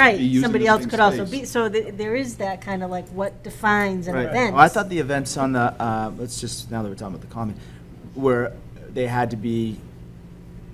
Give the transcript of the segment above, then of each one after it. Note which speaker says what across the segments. Speaker 1: also be
Speaker 2: Right,
Speaker 1: using
Speaker 2: somebody
Speaker 1: the
Speaker 2: else
Speaker 1: same
Speaker 2: could also
Speaker 1: space.
Speaker 2: be, so th- there is that kind of like what defines an
Speaker 3: Right.
Speaker 2: event.
Speaker 3: Well, I thought the events on the, uh, let's just, now that we're talking about the common, were, they had to be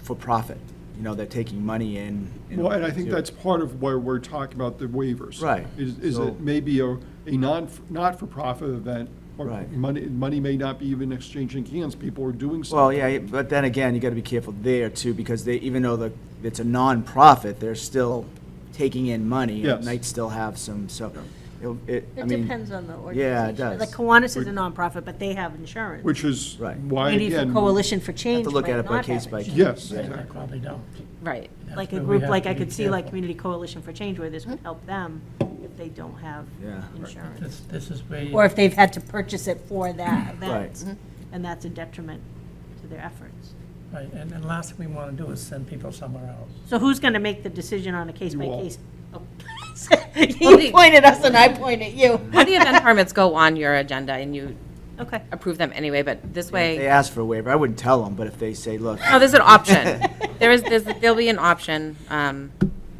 Speaker 3: for profit. You know, they're taking money in. in
Speaker 1: Well, and I
Speaker 3: order
Speaker 1: think
Speaker 3: to-
Speaker 1: that's part of why we're talking about the waivers.
Speaker 3: Right.
Speaker 1: Is, is
Speaker 3: So-
Speaker 1: it maybe a, a non, not-for-profit event, or
Speaker 3: Right.
Speaker 1: money, money may not be even exchanging hands, people are doing something.
Speaker 3: Well, yeah, but then again, you gotta be careful there too, because they, even though the, it's a nonprofit, they're still taking in money.
Speaker 1: Yes.
Speaker 3: And might still have some, so, it'll- it, I
Speaker 2: It
Speaker 3: mean.
Speaker 2: depends on the organization.
Speaker 3: Yeah, it does.
Speaker 2: Like Kiwanis is a nonprofit, but they have insurance.
Speaker 1: Which is
Speaker 3: Right.
Speaker 1: why,
Speaker 2: Maybe for
Speaker 1: again.
Speaker 2: Coalition for
Speaker 3: Have
Speaker 2: Change
Speaker 3: to look
Speaker 2: might
Speaker 3: at it by
Speaker 2: not
Speaker 3: case
Speaker 2: have
Speaker 3: by case.
Speaker 2: insurance.
Speaker 1: Yes,
Speaker 4: Yeah,
Speaker 1: exactly.
Speaker 4: Probably don't.
Speaker 2: Right,
Speaker 4: That's
Speaker 2: like a
Speaker 4: where we
Speaker 2: group,
Speaker 4: have
Speaker 2: like
Speaker 4: to
Speaker 2: I
Speaker 4: be
Speaker 2: could see like
Speaker 4: careful.
Speaker 2: Community Coalition for Change where this would help them if they don't have
Speaker 3: Yeah.
Speaker 2: insurance.
Speaker 4: This, this is where. you-
Speaker 2: Or if they've had to purchase it for that
Speaker 3: Right. Mm-hmm.
Speaker 2: event, and that's a detriment to their efforts.
Speaker 4: Right, and, and last thing we want to do is send people somewhere else.
Speaker 2: So who's going to make the decision on a case by
Speaker 1: all.
Speaker 2: case? Oh. You
Speaker 5: the-
Speaker 2: point at us and I point at you.
Speaker 5: The event permits go on your agenda and you
Speaker 2: Okay.
Speaker 5: approve them anyway, but this
Speaker 3: They
Speaker 5: way,
Speaker 3: ask for a waiver, I wouldn't tell them, but if they say, look,
Speaker 5: no, there's an option. There is, there's, there'll be an option um,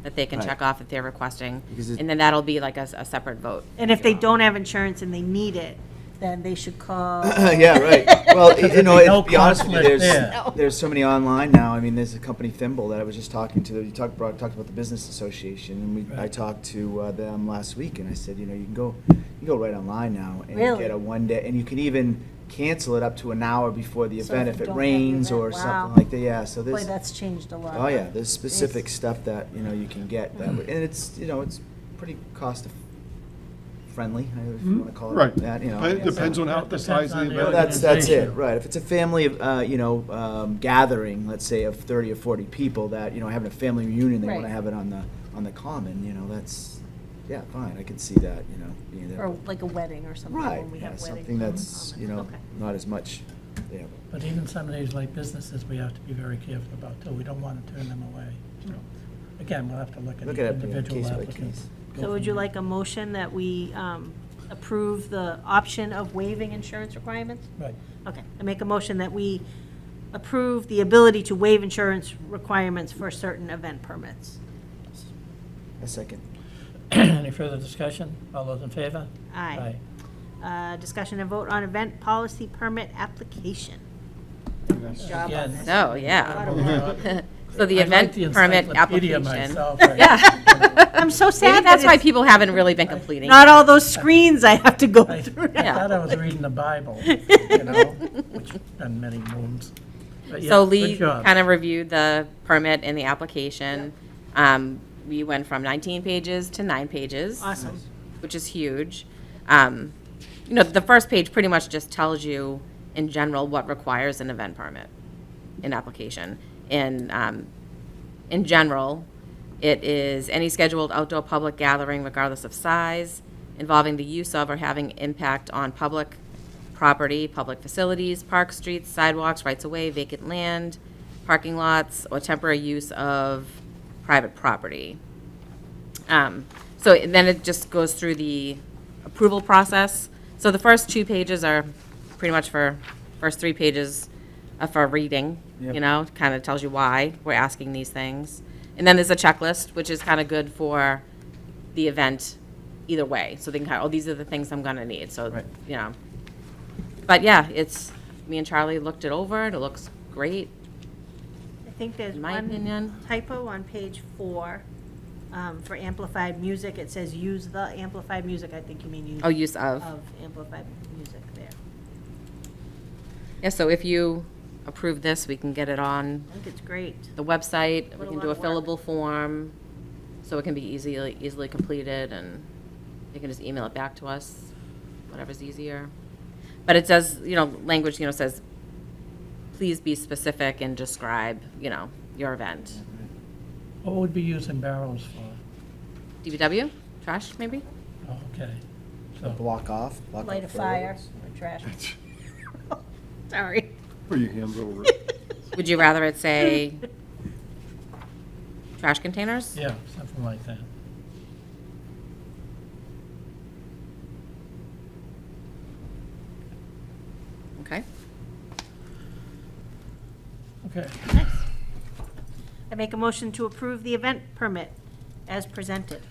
Speaker 5: that they can
Speaker 3: Right.
Speaker 5: check off if they're requesting.
Speaker 3: Because it-
Speaker 5: And then that'll be like a, s- a separate vote.
Speaker 2: And if they don't have insurance and they need it, then they should call.
Speaker 3: Uh, yeah, right. Well, y- you know,
Speaker 4: There'd be
Speaker 3: it-
Speaker 4: no
Speaker 3: to be honest with you,
Speaker 4: conflict
Speaker 3: there's, there's so many online now. I mean, there's a company Thimble that I was just talking to. You talked, brought, talked about the business association, and we, I
Speaker 4: Right.
Speaker 3: talked to uh, them last week, and I said, you know, you can go, you can go right online now and
Speaker 2: Really?
Speaker 3: get a one day, and you can even cancel it up to an hour before the
Speaker 2: So
Speaker 3: event
Speaker 2: if
Speaker 3: if
Speaker 2: you
Speaker 3: it
Speaker 2: don't have the
Speaker 3: rains
Speaker 2: event,
Speaker 3: or
Speaker 2: wow.
Speaker 3: something like that. Yeah, so
Speaker 2: Boy,
Speaker 3: there's,
Speaker 2: that's changed a lot.
Speaker 3: oh yeah, there's specific stuff that you know you can get that,
Speaker 2: Mm-hmm.
Speaker 3: way. and it's you know it's pretty cost eff- friendly, if
Speaker 4: Mm-hmm.
Speaker 3: you want to call it
Speaker 1: Right.
Speaker 3: that. You know,
Speaker 1: It
Speaker 3: yeah, so-
Speaker 1: Depends on how, the
Speaker 4: Depends
Speaker 1: size of
Speaker 4: on
Speaker 1: the
Speaker 4: the
Speaker 1: event.
Speaker 3: well, that's, that's it,
Speaker 4: Organization.
Speaker 3: right. If it's a family, uh, you know, um, gathering, let's say of thirty or forty people that, you know, having a family reunion, they want
Speaker 2: Right.
Speaker 3: to have it on the, on the common, you know, that's, yeah, fine, I can see that, you know, being there.
Speaker 2: Or like a wedding or something,
Speaker 3: Right,
Speaker 2: when we
Speaker 3: yeah,
Speaker 2: have weddings.
Speaker 3: something
Speaker 2: on
Speaker 3: that's,
Speaker 2: common.
Speaker 3: you know,
Speaker 2: Okay.
Speaker 3: not as much, yeah.
Speaker 4: But even some of these like businesses, we have to be very careful about too. We don't want to turn them away. So, Again, we'll have to look at
Speaker 3: Look
Speaker 4: each
Speaker 3: at it, yeah,
Speaker 4: individual
Speaker 3: case by
Speaker 4: applicants.
Speaker 3: case.
Speaker 4: Go
Speaker 2: So
Speaker 4: from
Speaker 2: would you
Speaker 4: there.
Speaker 2: like a motion that we um, approve the option of waiving insurance requirements?
Speaker 4: Right.
Speaker 2: Okay, I make a motion that we approve the ability to waive insurance requirements for certain event permits.
Speaker 3: A second.
Speaker 4: Any further discussion? All those in favor?
Speaker 2: Aye. Uh, Discussion and vote on event policy permit application.
Speaker 3: uh,
Speaker 2: Job on
Speaker 4: Again.
Speaker 2: this.
Speaker 5: So, yeah. So the
Speaker 4: I like
Speaker 5: event
Speaker 4: the
Speaker 5: permit
Speaker 4: encyclopedia
Speaker 5: application.
Speaker 4: myself.
Speaker 5: Yeah.
Speaker 2: I'm so
Speaker 5: Maybe
Speaker 2: sad that
Speaker 5: that's why
Speaker 2: it's
Speaker 5: people haven't really been completing.
Speaker 2: not all those screens I have to go
Speaker 4: I
Speaker 2: through
Speaker 4: I
Speaker 2: now.
Speaker 4: thought I was reading the Bible, you know, which has been many moons. But yeah,
Speaker 5: So
Speaker 4: good
Speaker 5: Lee
Speaker 4: job.
Speaker 5: kind of reviewed the permit and the application. Um, We went from 19 pages to nine pages.
Speaker 2: Awesome.
Speaker 5: which is huge. Um, you know, the first page pretty much just tells you in general what requires an event permit, an application. And um, in general, it is any scheduled outdoor public gathering, regardless of size, involving the use of or having impact on public property, public facilities, park streets, sidewalks, rights of way, vacant land, parking lots, or temporary use of private property. Um, So then it just goes through the approval process. So the first two pages are pretty much for, first three pages are for reading, you
Speaker 3: Yep.
Speaker 5: know, kind of tells you why we're asking these things. And then there's a checklist, which is kind of good for the event either way. So they can, kind of, oh, these are the things I'm going to need, so,
Speaker 3: Right.
Speaker 5: you know. But yeah, it's, me and Charlie looked it over, and it looks great,
Speaker 2: I think there's
Speaker 5: in my
Speaker 2: one
Speaker 5: opinion.
Speaker 2: typo on page four, um, for amplified music, it says use the amplified music, I think you mean use
Speaker 5: Oh, use of.
Speaker 2: of amplified music there.
Speaker 5: Yeah, so if you approve this, we can get it on
Speaker 2: I think it's great.
Speaker 5: the website, we
Speaker 2: What a
Speaker 5: can do a
Speaker 2: lot of work.
Speaker 5: fillable form, so it can be easily, easily completed, and they can just email it back to us, whatever's easier. But it does, you know, language, you know, says, please be specific and describe, you know, your event.
Speaker 4: What would we use in barrels for?
Speaker 5: DPW, trash, maybe?
Speaker 4: Oh, okay. So,
Speaker 3: Block off. block
Speaker 2: Light a
Speaker 3: off
Speaker 2: fire
Speaker 3: fireworks.
Speaker 2: or trash. Sorry.
Speaker 1: Put your hands over it.
Speaker 5: Would you rather it say trash containers?
Speaker 4: yeah, something like that.
Speaker 5: Okay.
Speaker 4: Okay.
Speaker 2: I make a motion to approve the event permit as presented.